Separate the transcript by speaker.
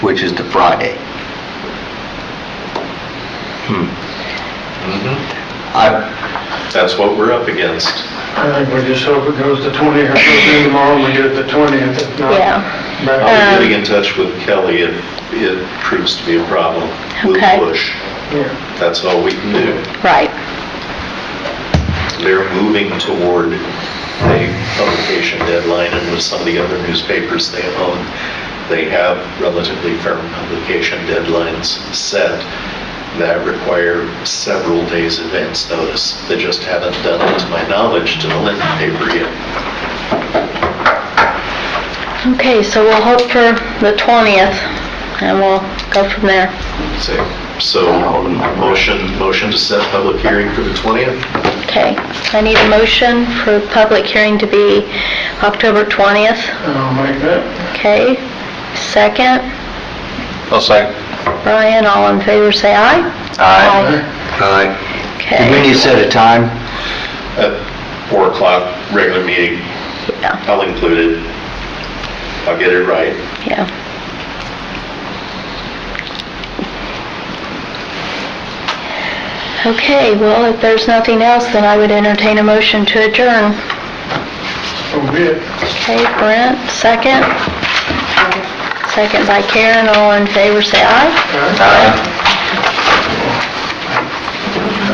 Speaker 1: which is the Friday. Hmm.
Speaker 2: Mhm.
Speaker 1: I,
Speaker 2: That's what we're up against.
Speaker 3: I think we just hope it goes to 20, or goes in tomorrow, we do it the 20th, if not.
Speaker 4: Yeah,
Speaker 3: back-
Speaker 2: I'll be
Speaker 4: Um,
Speaker 2: getting in touch with Kelly if it proves to be a problem.
Speaker 4: Okay.
Speaker 2: We'll push.
Speaker 3: Yeah.
Speaker 2: That's all we can do.
Speaker 4: right.
Speaker 2: They're moving toward the publication deadline, and with some of the other newspapers they own, they have relatively firm publication deadlines set that require several days advance notice. They just haven't done it, to my knowledge, to the Linden paper yet.
Speaker 4: Okay, so we'll hope for the 20th, and we'll go from there.
Speaker 2: So- So, motion, motion to set public hearing for the 20th?
Speaker 4: Okay, I need a motion for public hearing to be October 20th.
Speaker 3: I'll make that.
Speaker 4: Okay, second,
Speaker 1: I'll say.
Speaker 4: Brian, all in favor, say aye.
Speaker 1: Aye. Aye. Do we need
Speaker 4: Okay,
Speaker 1: to set a time?
Speaker 2: at 4 o'clock, regular meeting.
Speaker 4: Yeah.
Speaker 2: I'll include it. I'll get it right.
Speaker 4: yeah. Okay, well, if there's nothing else, then I would entertain a motion to adjourn.
Speaker 3: So be it.
Speaker 4: Okay, Brent, second. Second by Karen, all in favor, say aye.
Speaker 3: All right.
Speaker 1: Aye.